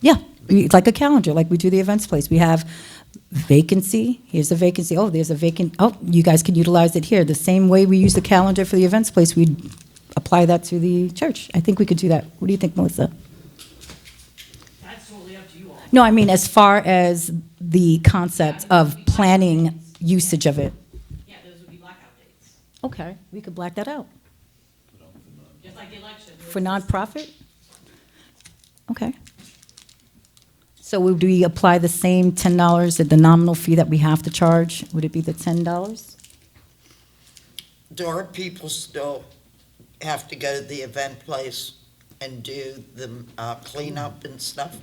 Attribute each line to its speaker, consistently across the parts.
Speaker 1: Yeah, we- like a calendar, like we do the events place. We have vacancy, here's a vacancy, oh, there's a vacant, oh, you guys can utilize it here. The same way we use the calendar for the events place, we apply that to the church. I think we could do that. What do you think, Melissa?
Speaker 2: That's totally up to you all.
Speaker 1: No, I mean, as far as the concept of planning usage of it.
Speaker 2: Yeah, those would be blackout dates,
Speaker 1: Okay, we could black that out.
Speaker 2: just like the election. there
Speaker 1: For
Speaker 2: was-
Speaker 1: nonprofit? Okay. So would we apply the same ten dollars at the nominal fee that we have to charge? Would it be the ten dollars?
Speaker 3: Dora, people still have to go to the event place and do the uh, cleanup and stuff?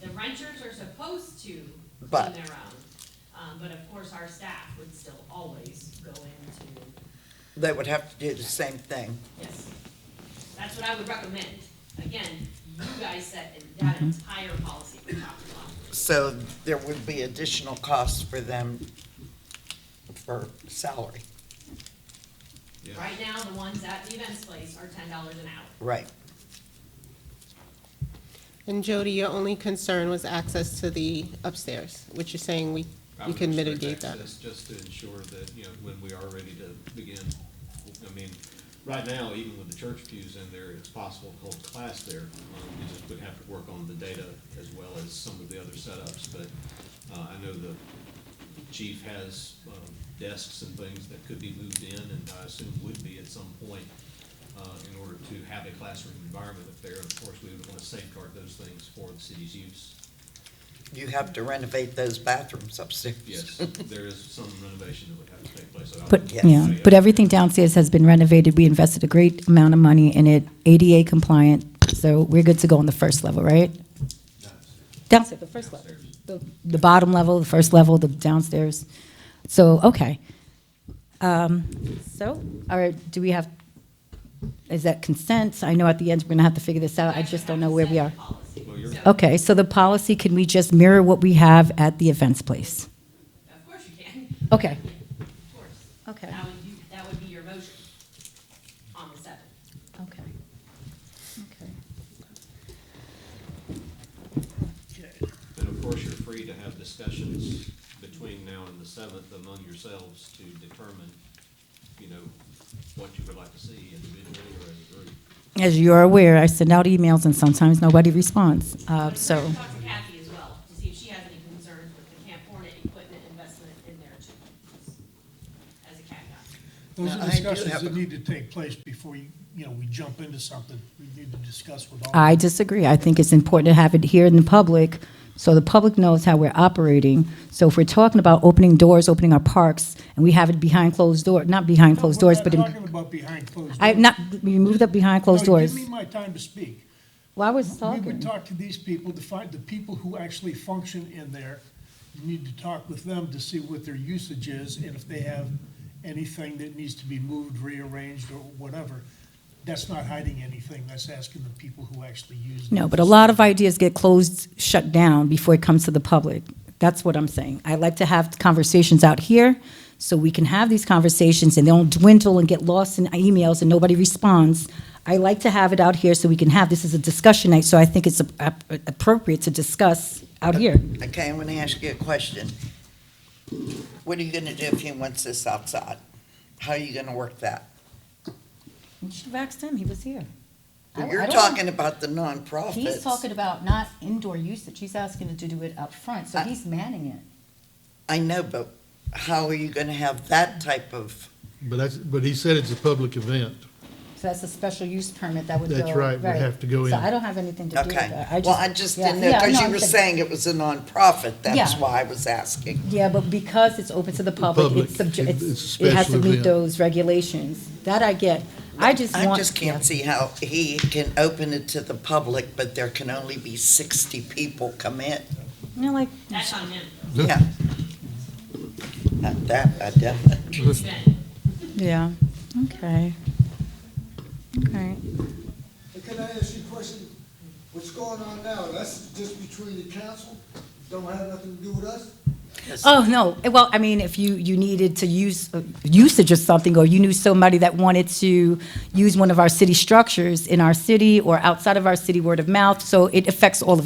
Speaker 2: The renters are supposed to clean
Speaker 3: But-
Speaker 2: their own, um, but of course, our staff would still always go into,
Speaker 3: They would have to do the same thing.
Speaker 2: yes. That's what I would recommend. Again, you guys set in- that
Speaker 1: Mm-hmm.
Speaker 2: entire policy from top to bottom.
Speaker 3: So there would be additional costs for them for salary,
Speaker 2: Right now, the ones at the events place are ten dollars an hour.
Speaker 3: right?
Speaker 4: And Jody, your only concern was access to the upstairs, which you're saying we,
Speaker 5: I
Speaker 4: you
Speaker 5: would
Speaker 4: can
Speaker 5: restrict
Speaker 4: mitigate that.
Speaker 5: access Just to ensure that, you know, when we are ready to begin, I mean, right now, even with the church pews in there, it's possible to hold class there. Um, You just would have to work on the data as well as some of the other setups, but uh, I know the chief has um, desks and things that could be moved in, and I assume would be at some point uh, in order to have a classroom environment up there. Of course, we would want to safeguard those things for the city's use.
Speaker 3: You have to renovate those bathrooms upstairs.
Speaker 5: Yes, there is some renovation that would have to take place. so I
Speaker 1: But,
Speaker 5: would-
Speaker 1: yeah, but everything downstairs has been renovated. We invested a great amount of money in it, ADA compliant, so we're good to go on the first level, right? Downstairs, the first level.
Speaker 5: Downstairs.
Speaker 1: The the bottom level, the first level, the downstairs. So, okay. Um, So, all right, do we have, is that consent? I know at the end, we're going to have to figure this out. I just don't know where we are.
Speaker 5: Well, you're-
Speaker 1: Okay, so the policy, can we just mirror what we have at the events place?
Speaker 2: Of course you can,
Speaker 1: Okay,
Speaker 2: of course.
Speaker 1: okay,
Speaker 2: That would, you- that would be your motion on the seventh.
Speaker 1: okay. Okay.
Speaker 5: And of course, you're free to have discussions between now and the seventh among yourselves to determine, you know, what you would like to see individually or as a group.
Speaker 1: As you're aware, I send out emails and sometimes nobody responds, uh,
Speaker 2: But
Speaker 1: so.
Speaker 2: we're gonna Talk to Kathy as well, to see if she has any concerns with the Camp Hornet equipment investment in there too. As a caveat.
Speaker 6: Those
Speaker 3: Now,
Speaker 6: are
Speaker 3: I do
Speaker 6: discussions
Speaker 3: have a-
Speaker 6: that need to take place before you, you know, we jump into something. We need to discuss with all.
Speaker 1: I disagree. I think it's important to have it here in the public, so the public knows how we're operating. So if we're talking about opening doors, opening our parks, and we have it behind closed door, not behind closed doors, but
Speaker 6: We're not talking
Speaker 1: in,
Speaker 6: about behind closed doors.
Speaker 1: I, not, we moved up behind closed
Speaker 6: No,
Speaker 1: doors.
Speaker 6: Give me my time to speak.
Speaker 1: Well, I was
Speaker 6: We would
Speaker 1: talking.
Speaker 6: talk to these people, to find the people who actually function in there. You need to talk with them to see what their usage is and if they have anything that needs to be moved, rearranged, or whatever. That's not hiding anything. That's asking the people who actually use.
Speaker 1: No,
Speaker 6: the
Speaker 1: but a lot of ideas get closed, shut down before it comes to the public. That's what I'm saying. I like to have conversations out here, so we can have these conversations and they don't dwindle and get lost in emails and nobody responds. I like to have it out here so we can have, this is a discussion night, so I think it's ap- appropriate to discuss out here.
Speaker 3: Okay, I'm gonna ask you a question. What are you gonna do if he wants this outside? How are you gonna work that?
Speaker 1: She asked him, he was here. I- I
Speaker 3: You're
Speaker 1: don't-
Speaker 3: talking about the nonprofits.
Speaker 1: He's talking about not indoor usage, he's asking to do it up front, so he's manning it.
Speaker 3: I know, but how are you gonna have that type of,
Speaker 7: But that's, but he said it's a public event.
Speaker 1: So that's a special use permit that would go.
Speaker 7: That's right, would have to go
Speaker 1: So
Speaker 7: in.
Speaker 1: I don't have anything to do with
Speaker 3: okay.
Speaker 1: that.
Speaker 3: Well, I just
Speaker 1: yeah,
Speaker 3: didn't know,
Speaker 1: yeah,
Speaker 3: because
Speaker 1: no,
Speaker 3: you
Speaker 1: I'm
Speaker 3: were
Speaker 1: saying-
Speaker 3: saying it was a nonprofit, that's
Speaker 1: Yeah.
Speaker 3: why I was asking.
Speaker 1: Yeah, but because it's open to the public,
Speaker 7: public,
Speaker 1: it's subject,
Speaker 7: it-
Speaker 1: it's-
Speaker 7: it's a
Speaker 1: it has to
Speaker 7: special
Speaker 1: meet
Speaker 7: event.
Speaker 1: those regulations. That I get. I just want.
Speaker 3: I just can't see how he can open it to the public, but there can only be sixty people come in.
Speaker 1: You know, like,
Speaker 2: That's on him,
Speaker 3: Yeah. Not that, I definitely,
Speaker 2: Ben.
Speaker 1: yeah, okay. Okay.
Speaker 8: Can I ask you a question? What's going on now, that's just between the council, don't have nothing to do with us?
Speaker 1: Oh, no, well, I mean, if you, you needed to use, uh, usage of something, or you knew somebody that wanted to use one of our city structures in our city or outside of our city, word of mouth, so it affects all of